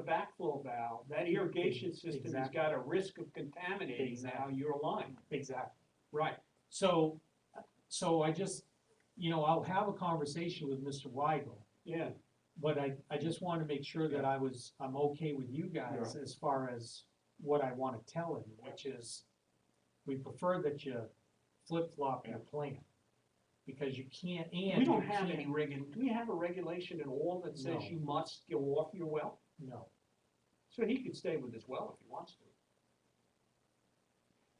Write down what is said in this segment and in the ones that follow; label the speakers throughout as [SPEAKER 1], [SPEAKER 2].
[SPEAKER 1] the backflow valve, that irrigation system has
[SPEAKER 2] Exactly.
[SPEAKER 1] got a risk of contaminating now your line.
[SPEAKER 2] Exactly.
[SPEAKER 1] Right,
[SPEAKER 2] So, so I just, you know, I'll have a conversation with Mr. Weigel,
[SPEAKER 1] yeah,
[SPEAKER 2] but I, I just want to make sure that I was, I'm okay with you guys as far as what I want to tell him, which is, we prefer that you flip-flop your plan. Because you can't, and.
[SPEAKER 1] we
[SPEAKER 2] you
[SPEAKER 1] don't have
[SPEAKER 2] can't-
[SPEAKER 1] any regu, do we have a regulation at all that says
[SPEAKER 2] No.
[SPEAKER 1] you must go off your well?
[SPEAKER 2] No,
[SPEAKER 1] So he could stay with his well if he wants to.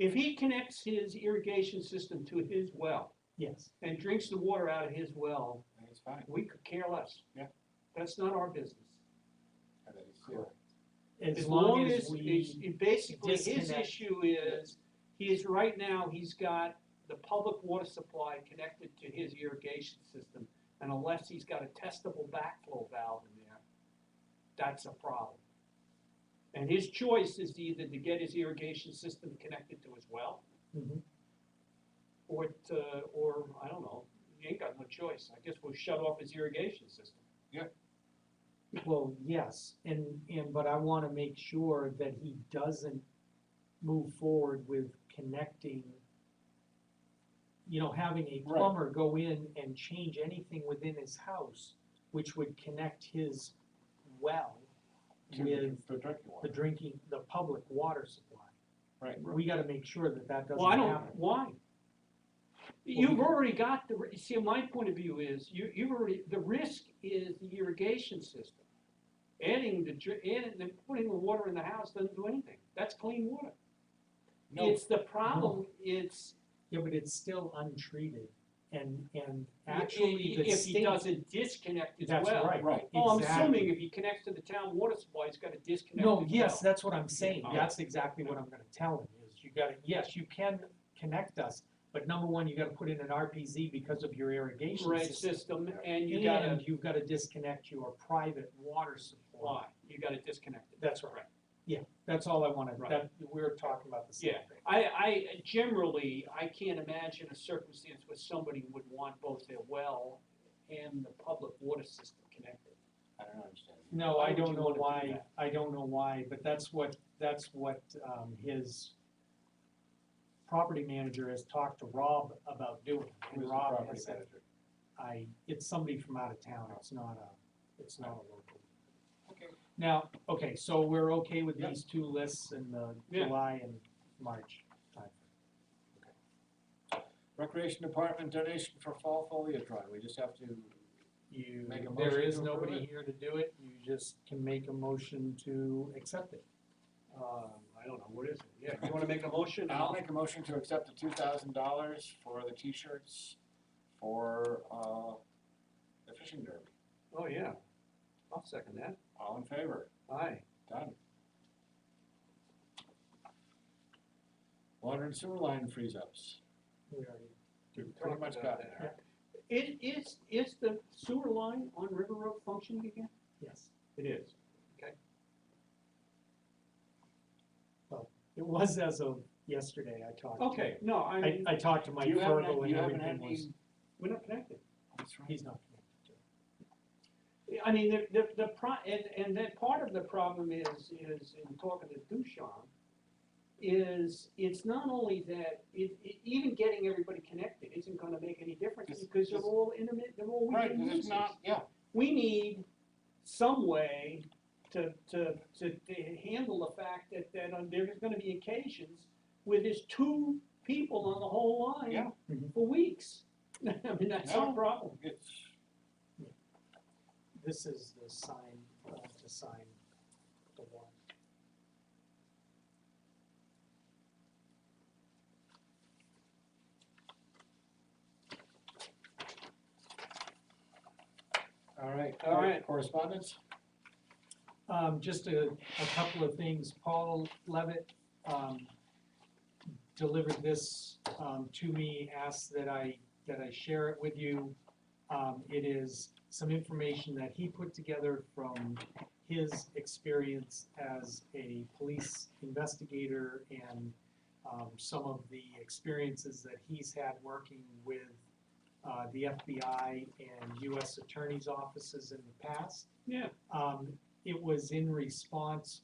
[SPEAKER 1] If he connects his irrigation system to his well
[SPEAKER 2] yes,
[SPEAKER 1] and drinks the water out of his well,
[SPEAKER 3] That's fine.
[SPEAKER 1] we could care less.
[SPEAKER 3] Yeah.
[SPEAKER 1] That's not our business.
[SPEAKER 3] That is zero.
[SPEAKER 2] as long as
[SPEAKER 1] it's-
[SPEAKER 2] we,
[SPEAKER 1] it Basically, his
[SPEAKER 2] disconnect.
[SPEAKER 1] issue is, he is, right now, he's got the public water supply connected to his irrigation system. And unless he's got a testable backflow valve in there, that's a problem. And his choice is either to get his irrigation system connected to his well,
[SPEAKER 2] Mhm.
[SPEAKER 1] or to, or, I don't know, he ain't got no choice. I guess we'll shut off his irrigation system.
[SPEAKER 2] well, yes, and, and, but I want to make sure that he doesn't move forward with connecting, you know, having a
[SPEAKER 3] Right.
[SPEAKER 2] plumber go in and change anything within his house, which would connect his well
[SPEAKER 3] To
[SPEAKER 2] with
[SPEAKER 3] the drinking
[SPEAKER 2] the
[SPEAKER 3] water.
[SPEAKER 2] drinking, the public water supply.
[SPEAKER 3] Right.
[SPEAKER 2] We got to make sure that that doesn't
[SPEAKER 1] Well, I don't,
[SPEAKER 2] happen.
[SPEAKER 1] why? You've already got the, ri- see, my point of view is, you, you've already, the risk is the irrigation system. Adding the, dr- adding, the- putting the water in the house doesn't do anything, that's clean water.
[SPEAKER 3] No,
[SPEAKER 1] It's the problem, it's,
[SPEAKER 2] Yeah, but it's still untreated, and, and
[SPEAKER 1] i- i-
[SPEAKER 2] actually the
[SPEAKER 1] if he
[SPEAKER 2] state.
[SPEAKER 1] doesn't disconnect as well.
[SPEAKER 2] That's right.
[SPEAKER 3] right,
[SPEAKER 1] Oh, I'm
[SPEAKER 2] exactly.
[SPEAKER 1] assuming if he connects to the town water supply, he's gotta disconnect as well.
[SPEAKER 2] No, yes, that's what I'm saying,
[SPEAKER 1] Yeah. oh,
[SPEAKER 2] that's exactly what I'm gonna tell him, is you gotta, yes, you can connect us, but number one, you gotta put in an RPZ because of your irrigation
[SPEAKER 1] Right
[SPEAKER 2] system.
[SPEAKER 1] system, and you gotta,
[SPEAKER 2] And you've gotta disconnect your private water supply.
[SPEAKER 1] why, you gotta disconnect it.
[SPEAKER 2] That's right, yeah, that's all I wanted,
[SPEAKER 1] Right.
[SPEAKER 2] that, we're talking about the same
[SPEAKER 1] Yeah.
[SPEAKER 2] thing.
[SPEAKER 1] I, I generally, I can't imagine a circumstance where somebody would want both their well and the public water system connected.
[SPEAKER 3] I don't understand.
[SPEAKER 2] No,
[SPEAKER 1] Why
[SPEAKER 2] I
[SPEAKER 1] would
[SPEAKER 2] don't
[SPEAKER 1] you
[SPEAKER 2] know
[SPEAKER 1] wanna do
[SPEAKER 2] why,
[SPEAKER 1] that?
[SPEAKER 2] I don't know why, but that's what, that's what, um, his property manager has talked to Rob about doing,
[SPEAKER 3] Who's
[SPEAKER 2] and
[SPEAKER 3] the
[SPEAKER 2] Rob
[SPEAKER 3] property
[SPEAKER 2] has said,
[SPEAKER 3] manager?
[SPEAKER 2] I, it's somebody from out of town, it's not a, it's not a local.
[SPEAKER 3] Okay.
[SPEAKER 2] Now, okay, so we're okay with
[SPEAKER 3] Yeah.
[SPEAKER 2] these two lists in the
[SPEAKER 1] Yeah.
[SPEAKER 2] July and March time.
[SPEAKER 3] Recreation Department donation for fall foliage drive, we just have to,
[SPEAKER 2] You,
[SPEAKER 3] Make a
[SPEAKER 2] there
[SPEAKER 3] motion
[SPEAKER 2] is
[SPEAKER 3] to approve
[SPEAKER 2] nobody
[SPEAKER 3] it?
[SPEAKER 2] here to do it, you just can make a motion to accept it.
[SPEAKER 1] Um, I don't know, what is it? Yeah, you wanna make a motion?
[SPEAKER 3] I'll make a motion to accept the two thousand dollars for the t-shirts for, uh, the fishing derby.
[SPEAKER 1] Oh, yeah. I'll second that.
[SPEAKER 3] All in favor?
[SPEAKER 1] Aye.
[SPEAKER 3] Done. Water and sewer line freeze ups.
[SPEAKER 2] We already-
[SPEAKER 1] We
[SPEAKER 3] Pretty
[SPEAKER 1] talked
[SPEAKER 3] much
[SPEAKER 1] about that.
[SPEAKER 3] got there.
[SPEAKER 1] It, is, is the sewer line on River Road functioning again?
[SPEAKER 2] Yes,
[SPEAKER 1] It is.
[SPEAKER 2] it was as of yesterday, I talked. to-
[SPEAKER 1] Okay, no, I
[SPEAKER 2] I,
[SPEAKER 1] mean,
[SPEAKER 2] I talked to Mike
[SPEAKER 3] You haven't, had-
[SPEAKER 2] Fergel and
[SPEAKER 3] you haven't had
[SPEAKER 2] everything
[SPEAKER 3] any,
[SPEAKER 2] was,
[SPEAKER 1] we're not connected.
[SPEAKER 3] that's right.
[SPEAKER 2] he's not connected to it.
[SPEAKER 1] I mean, the, the, the pro, and, and that part of the problem is, is in talking to Dushan, is it's not only that, it, it, even getting everybody connected isn't gonna make any difference
[SPEAKER 3] It's-
[SPEAKER 1] because they're
[SPEAKER 3] it's-
[SPEAKER 1] all intermittent, they're all
[SPEAKER 3] Right,
[SPEAKER 1] weekend
[SPEAKER 3] because it's
[SPEAKER 1] users.
[SPEAKER 3] not, yeah,
[SPEAKER 1] We need some way to, to, to, to handle the fact that, that uh, there's gonna be occasions where there's two people on the whole line
[SPEAKER 3] Yeah.
[SPEAKER 2] Mhm.
[SPEAKER 1] for weeks. I mean, that's our
[SPEAKER 3] No.
[SPEAKER 1] problem.
[SPEAKER 3] it's,
[SPEAKER 2] This is the sign, uh, to sign the one.
[SPEAKER 3] all right.
[SPEAKER 1] All right.
[SPEAKER 3] Correspondence?
[SPEAKER 2] Um, just a, a couple of things, Paul Levitt, um, delivered this, um, to me, asked that I, that I share it with you. Um, it is some information that he put together from his experience as a police investigator and, um, some of the experiences that he's had working with, uh, the FBI and US attorney's offices in the past.
[SPEAKER 1] Yeah.
[SPEAKER 2] Um, it- it was in response